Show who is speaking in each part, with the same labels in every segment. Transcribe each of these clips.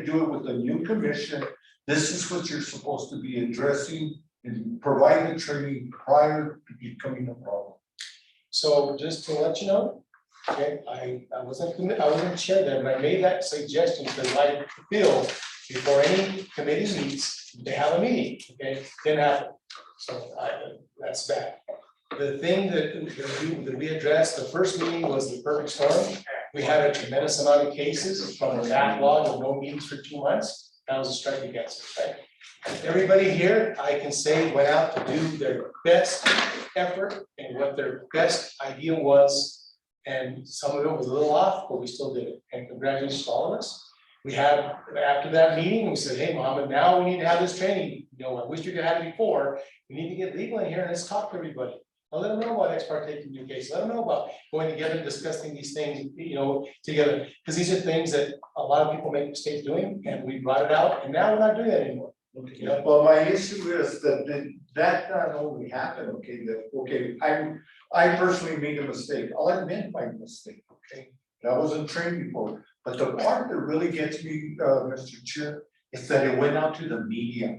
Speaker 1: do it with a new commission. This is what you're supposed to be addressing and provide the training prior to becoming a problem.
Speaker 2: So just to let you know, okay, I, I wasn't, commi- I wasn't chair then, but I made that suggestion because I feel before any committee meets, they have a meeting, okay, didn't happen. So I, that's bad. The thing that, that we, that we addressed, the first meeting was the perfect storm. We had a tremendous amount of cases from a backlog of no meetings for two months. That was a strike against us, right? Everybody here, I can say, went out to do their best effort and what their best idea was. And some of it was a little off, but we still did it. And congratulations to all of us. We had, after that meeting, we said, hey, Mohammed, now we need to have this training. You know, I wish we could have it before. We need to get legal in here and let's talk to everybody. Now let them know about ex parte communication. Let them know about going together, discussing these things, you know, together. Because these are things that a lot of people make mistakes doing and we brought it out and now we're not doing that anymore. You know,
Speaker 1: Well, my issue is that that- that not only happened, okay, that, okay, I, I personally made a mistake. I'll admit my mistake, okay? And I wasn't trained before, but the part that really gets me, uh, Mr. Chair, is that it went out to the media.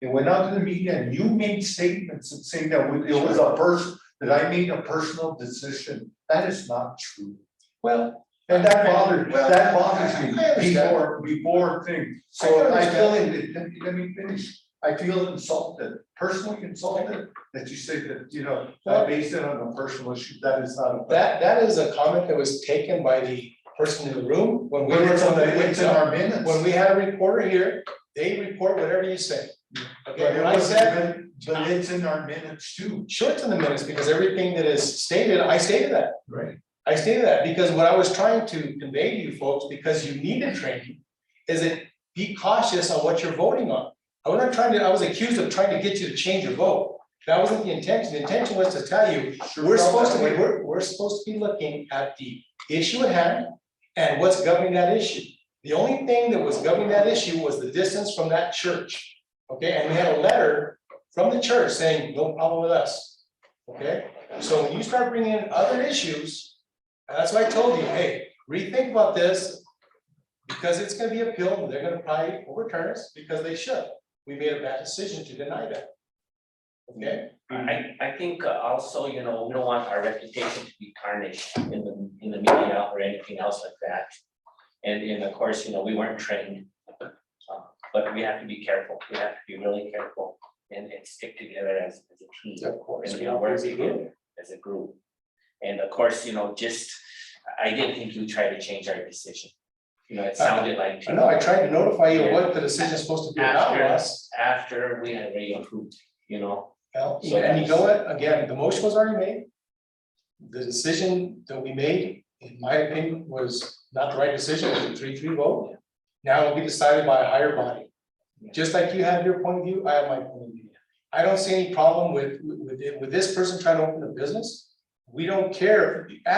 Speaker 1: It went out to the media and you made statements and saying that it was a person, that I made a personal decision. That is not true.
Speaker 2: well.
Speaker 1: And that bothers,
Speaker 2: Well,
Speaker 1: that bothers
Speaker 2: I
Speaker 1: me
Speaker 2: understand.
Speaker 1: before, before thing,
Speaker 2: I
Speaker 1: so
Speaker 2: can
Speaker 1: I feel, in- let me- let me finish. I feel insulted, personally insulted, that you say that, you know, I based it on a personal issue, that is not. a-
Speaker 2: That, that is a comment that was taken by the person in the room when we
Speaker 1: But
Speaker 2: were
Speaker 1: it's
Speaker 2: on
Speaker 1: on
Speaker 2: the,
Speaker 1: the, it's in our minutes.
Speaker 2: when we had a reporter here, they report whatever you say.
Speaker 1: But
Speaker 2: Okay,
Speaker 1: it
Speaker 2: when I
Speaker 1: wasn't
Speaker 2: said,
Speaker 1: even- But it's in our minutes too.
Speaker 2: sure it's in the minutes because everything that is stated, I stated that.
Speaker 1: Right.
Speaker 2: I stated that because what I was trying to convey to you folks, because you needed training, is that be cautious on what you're voting on. I was not trying to, I was accused of trying to get you to change your vote. That wasn't the intention. The intention was to tell you, We're supposed to be, we're, we're supposed to be looking at the issue at hand and what's governing that issue. The only thing that was governing that issue was the distance from that church. Okay, and we had a letter from the church saying, no problem with us. Okay, so when you start bringing in other issues, and that's why I told you, hey, rethink about this. Because it's gonna be appealed, and they're gonna probably overturn us because they should. We made a bad decision to deny that. Okay? Mm.
Speaker 3: I I think uh, also, you know, we don't want our reputation to be tarnished in the in the media or anything else like that. And and of course, you know, we weren't trained. uh, But we have to be careful, we have to be really careful and and stick together as as a team.
Speaker 2: Of course,
Speaker 3: And
Speaker 2: we
Speaker 3: you know,
Speaker 2: all
Speaker 3: work
Speaker 2: as a group.
Speaker 3: together as a group. And of course, you know, just, I- I didn't think you tried to change our decision. You know, it sounded like.
Speaker 2: Uh, I know, I tried to notify you what the decision is supposed to be about
Speaker 3: After-
Speaker 2: us.
Speaker 3: After we had already approved, you know,
Speaker 2: Well,
Speaker 3: So
Speaker 2: And you know what, again, the motion was already made. The decision that we made, in my opinion, was not the right decision, it was a three three vote. Now it'll be decided by a higher body. Just like you have your point of view, I have my point of view. I don't see any problem with with it- with this person trying to open a business. We don't care,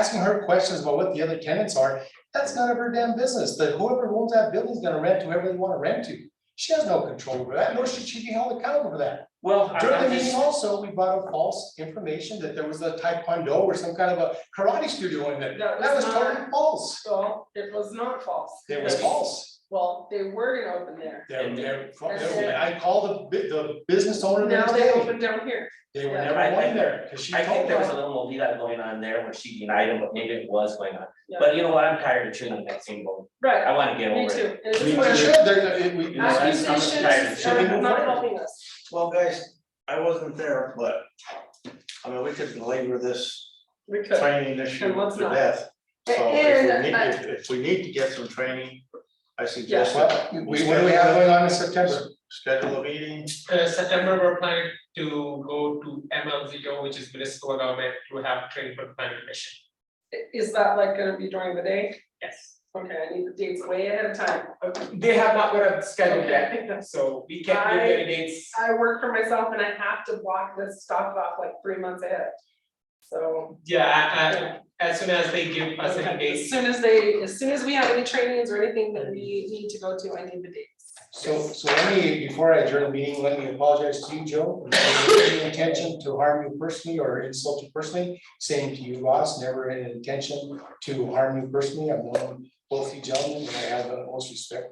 Speaker 2: asking her questions about what the other tenants are, that's none of her damn business, that whoever owns that building is gonna rent to whoever they wanna rent to. She has no control over that, nor should she be held accountable for that.
Speaker 3: well, I'm
Speaker 2: During
Speaker 3: I'm
Speaker 2: the
Speaker 3: just.
Speaker 2: meeting also, we brought up false information that there was a taekwondo or some kind of a karate studio in there.
Speaker 4: That
Speaker 2: That was
Speaker 4: was not-
Speaker 2: totally false.
Speaker 4: So it was not false.
Speaker 2: It was false.
Speaker 4: Well, they were gonna open there.
Speaker 2: They're- they're-
Speaker 4: And
Speaker 2: they're-
Speaker 4: then-
Speaker 2: I called the, bu- the business owner the
Speaker 4: Now
Speaker 2: next
Speaker 4: they
Speaker 2: day.
Speaker 4: opened down here.
Speaker 2: They were
Speaker 4: yeah.
Speaker 2: never
Speaker 3: I- I-
Speaker 2: going there because she
Speaker 3: I think
Speaker 2: told
Speaker 3: there was a
Speaker 2: them.
Speaker 3: little movida going on there where she denied him, but maybe it was going on.
Speaker 4: Yeah.
Speaker 3: But you know what? I'm tired of chewing on that same bone.
Speaker 4: Right,
Speaker 3: I wanna get
Speaker 4: me
Speaker 3: over it.
Speaker 4: too. And this
Speaker 2: We
Speaker 4: is where
Speaker 2: should, they're- it- we-
Speaker 3: know, I- I'm tired.
Speaker 4: Accusations
Speaker 3: Should we
Speaker 4: are
Speaker 3: move
Speaker 4: not
Speaker 3: forward?
Speaker 4: helping us.
Speaker 5: Well, guys, I wasn't there, but, I mean, we could belabor this
Speaker 4: We could.
Speaker 5: training issue
Speaker 4: And what's
Speaker 5: to
Speaker 4: not.
Speaker 5: death. So if
Speaker 4: And,
Speaker 5: we need,
Speaker 4: uh,
Speaker 5: if, if we need to get some training, I suggest that
Speaker 2: Well, we, what do we have going on in September?
Speaker 5: schedule a meeting.
Speaker 6: Uh, September, we're planning to go to MLZO, which is municipal government, to have training for planning commission.
Speaker 4: Is that like gonna be during the day?
Speaker 6: Yes.
Speaker 4: Okay, I need the dates way ahead of time.
Speaker 6: Uh, They have not got a schedule
Speaker 4: Okay, I
Speaker 6: yet,
Speaker 4: think that's,
Speaker 6: so we can't give you any dates.
Speaker 4: I work for myself and I have to block this stuff off like three months ahead. So.
Speaker 6: Yeah,
Speaker 4: yeah.
Speaker 6: uh, as soon as they give us any
Speaker 4: Okay. As
Speaker 6: dates,
Speaker 4: soon as they, as soon as we have any trainings or anything that we need to go to, I need the dates.
Speaker 2: So, so let me, before I adjourn the meeting, let me apologize to you, Joe. It was Any intention to harm you personally or insult you personally, same to you, Ross, never an intention to harm you personally. I've known both you gentlemen, and I have the most respect